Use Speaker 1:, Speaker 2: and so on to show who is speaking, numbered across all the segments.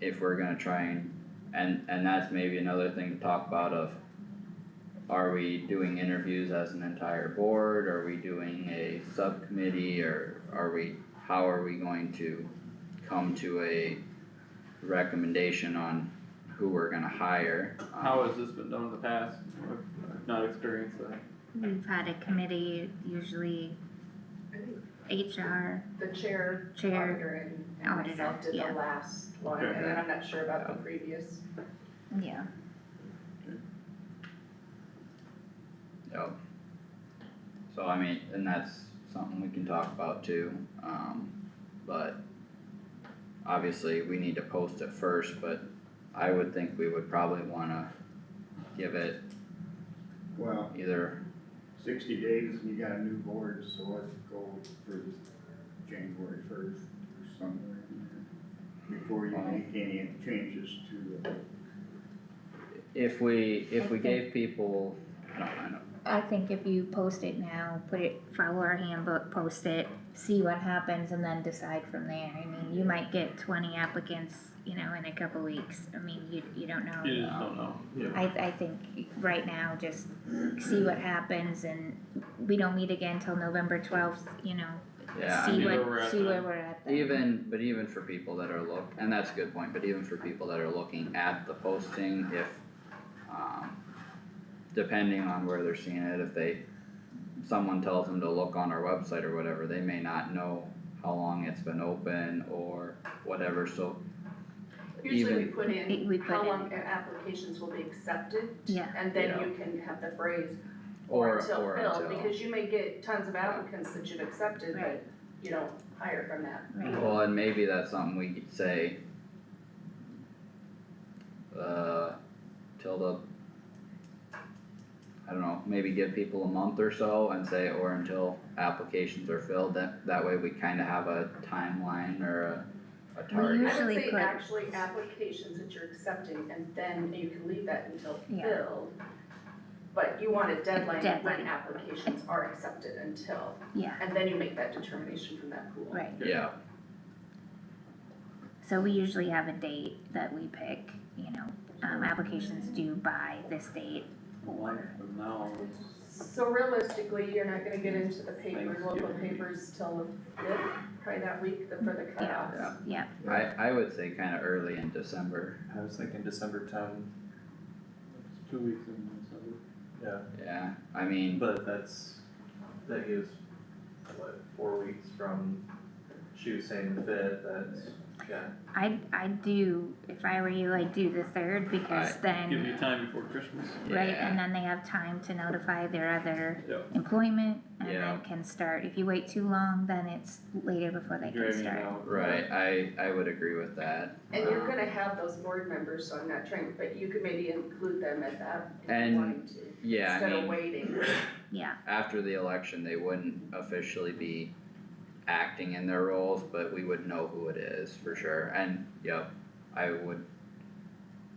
Speaker 1: if we're gonna try and, and, and that's maybe another thing to talk about of. Are we doing interviews as an entire board, are we doing a subcommittee, or are we, how are we going to come to a recommendation on who we're gonna hire? Um,
Speaker 2: How has this been done in the past? I've I've not experienced that.
Speaker 3: We've had a committee, usually
Speaker 4: I think
Speaker 3: HR
Speaker 4: The chair,
Speaker 3: chair,
Speaker 4: auditor and- and myself
Speaker 3: Auditor,
Speaker 4: did the
Speaker 3: yeah. Oh.
Speaker 4: last one, and then I'm not sure about the previous.
Speaker 3: yeah.
Speaker 1: Yep. So I mean, and that's something we can talk about too, um, but obviously we need to post it first, but I would think we would probably wanna give it
Speaker 5: Well,
Speaker 1: either,
Speaker 5: sixty days and you got a new board, so let's go for January first or somewhere in there. Before you make any changes to the.
Speaker 1: if we, if we
Speaker 3: Okay.
Speaker 1: gave people, I don't, I don't,
Speaker 3: I think if you post it now, put it, follow our handbook, post it, see what happens and then decide from there. I mean, you might get twenty applicants, you know, in a couple weeks. I mean, you, you don't
Speaker 2: You
Speaker 3: know.
Speaker 2: just don't know.
Speaker 3: I, I think right now, just see what happens and we don't meet again till November twelfth, you know.
Speaker 1: yeah, I
Speaker 3: See
Speaker 1: mean,
Speaker 2: where we're
Speaker 3: what,
Speaker 2: at
Speaker 3: see where
Speaker 2: then.
Speaker 3: we're at then.
Speaker 1: even, but even for people that are look, and that's a good point, but even for people that are looking at the posting, if, um, depending on where they're seeing it, if they, someone tells them to look on our website or whatever, they may not know how long it's been open or whatever, so,
Speaker 4: Usually we
Speaker 1: Even-
Speaker 4: put
Speaker 3: It- we
Speaker 4: in
Speaker 3: put
Speaker 4: how
Speaker 3: in-
Speaker 4: long a- applications will be accepted,
Speaker 3: Yeah,
Speaker 4: and then you can have the phrase, or
Speaker 1: or,
Speaker 4: until
Speaker 1: or
Speaker 4: filled,
Speaker 1: until.
Speaker 4: because you may get tons of applicants that you've accepted,
Speaker 3: Right.
Speaker 4: but you don't hire from that.
Speaker 3: right.
Speaker 1: Well, and maybe that's something we could say. Uh, till the. I don't know, maybe give people a month or so and say, or until applications are filled, that, that way we kinda have a timeline or a, a target.
Speaker 4: I would
Speaker 3: Usually
Speaker 4: say
Speaker 3: put-
Speaker 4: actually applications that you're accepting, and then you can leave that until
Speaker 3: Yeah.
Speaker 4: filled. But you want a deadline
Speaker 3: deadline.
Speaker 4: when applications are accepted until,
Speaker 3: Yeah,
Speaker 4: and then you make that determination from that pool.
Speaker 3: right.
Speaker 1: Yeah,
Speaker 3: So we usually have a date that we pick, you know, um, applications due by this date or.
Speaker 2: But now it's
Speaker 4: So realistically, you're not gonna get into the papers, local papers till the fifth, probably that week, the, for the
Speaker 1: Yeah.
Speaker 4: cutoffs.
Speaker 3: Yeah,
Speaker 1: I, I would say kinda early in December,
Speaker 6: I was thinking December ten,
Speaker 2: it's two weeks in December.
Speaker 6: yeah,
Speaker 1: yeah, I mean,
Speaker 6: but that's, that gives, what, four weeks from she was saying the fifth, that's, yeah.
Speaker 3: I, I do, if I were you, I'd do the third because
Speaker 2: Give
Speaker 3: then,
Speaker 2: me time before Christmas.
Speaker 3: right, and
Speaker 1: yeah,
Speaker 3: then they have time to notify their other
Speaker 2: Yep.
Speaker 3: employment and
Speaker 1: Yeah.
Speaker 3: then can start. If you wait too long, then it's later before they can
Speaker 2: Dragging it
Speaker 3: start.
Speaker 2: out.
Speaker 1: right, I, I would agree with that.
Speaker 4: And you're
Speaker 1: Um,
Speaker 4: gonna have those board members, so I'm not trying, but you could maybe include them at that if
Speaker 1: And-
Speaker 4: you wanted to,
Speaker 1: Yeah, I
Speaker 4: instead
Speaker 1: mean.
Speaker 4: of waiting.
Speaker 3: Yeah,
Speaker 1: after the election, they wouldn't officially be acting in their roles, but we would know who it is for sure, and, yep, I would,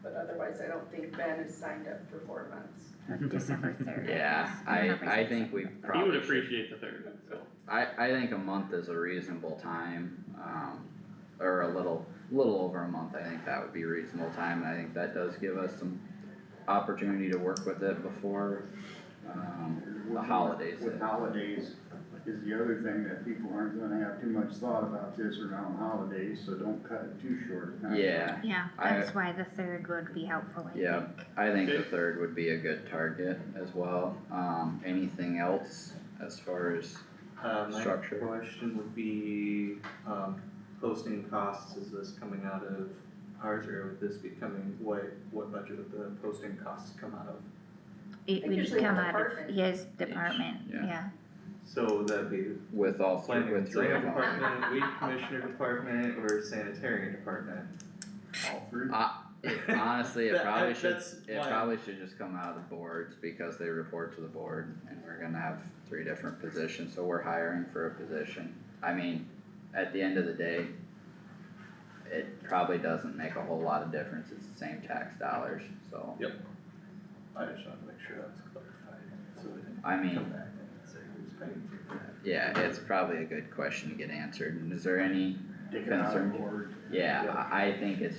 Speaker 4: But otherwise, I don't think Ben is signed up for four months.
Speaker 3: of December third.
Speaker 1: yeah, I, I think we
Speaker 2: He would
Speaker 1: probably should,
Speaker 2: appreciate the third, so.
Speaker 1: I, I think a month is a reasonable time, um, or a little, little over a month, I think that would be reasonable time, and I think that does give us some opportunity to work with it before, um, the holidays.
Speaker 5: uh, With holidays is the other thing that people aren't gonna have too much thought about this around holidays, so don't cut it too short.
Speaker 1: yeah,
Speaker 3: Yeah,
Speaker 1: I-
Speaker 3: that's why the third would be helpful, I think.
Speaker 1: Yeah, I think the
Speaker 2: Okay.
Speaker 1: third would be a good target as well. Um, anything else as far as,
Speaker 6: Um, my
Speaker 1: Structure.
Speaker 6: question would be, um, posting costs, is this coming out of ours or would this be coming, what, what budget would the posting costs come out of?
Speaker 3: It
Speaker 4: They
Speaker 3: would
Speaker 4: usually
Speaker 3: come
Speaker 4: have
Speaker 3: out of
Speaker 4: department.
Speaker 3: his department,
Speaker 1: yeah.
Speaker 3: yeah,
Speaker 6: So that'd be
Speaker 1: with all three,
Speaker 6: planning and
Speaker 1: with three
Speaker 6: zoning
Speaker 1: of them?
Speaker 6: department, weed commissioner department, or sanitarian department?
Speaker 5: All three.
Speaker 1: Honestly, it
Speaker 6: That-
Speaker 1: probably
Speaker 6: I-
Speaker 1: should,
Speaker 6: that's
Speaker 1: it
Speaker 6: why-
Speaker 1: probably should just come out of the boards because they report to the board and we're gonna have three different positions, so we're hiring for a position. I mean, at the end of the day, it probably doesn't make a whole lot of difference. It's the same tax dollars, so,
Speaker 6: I just wanted to make sure that was clarified, so we didn't
Speaker 1: I mean.
Speaker 6: come back and say who's paying for that.
Speaker 1: Yeah, it's probably a good question to get answered, and is there any,
Speaker 5: Take it out of
Speaker 1: Concern.
Speaker 5: board.
Speaker 1: yeah,
Speaker 6: Yeah.
Speaker 1: I, I think it's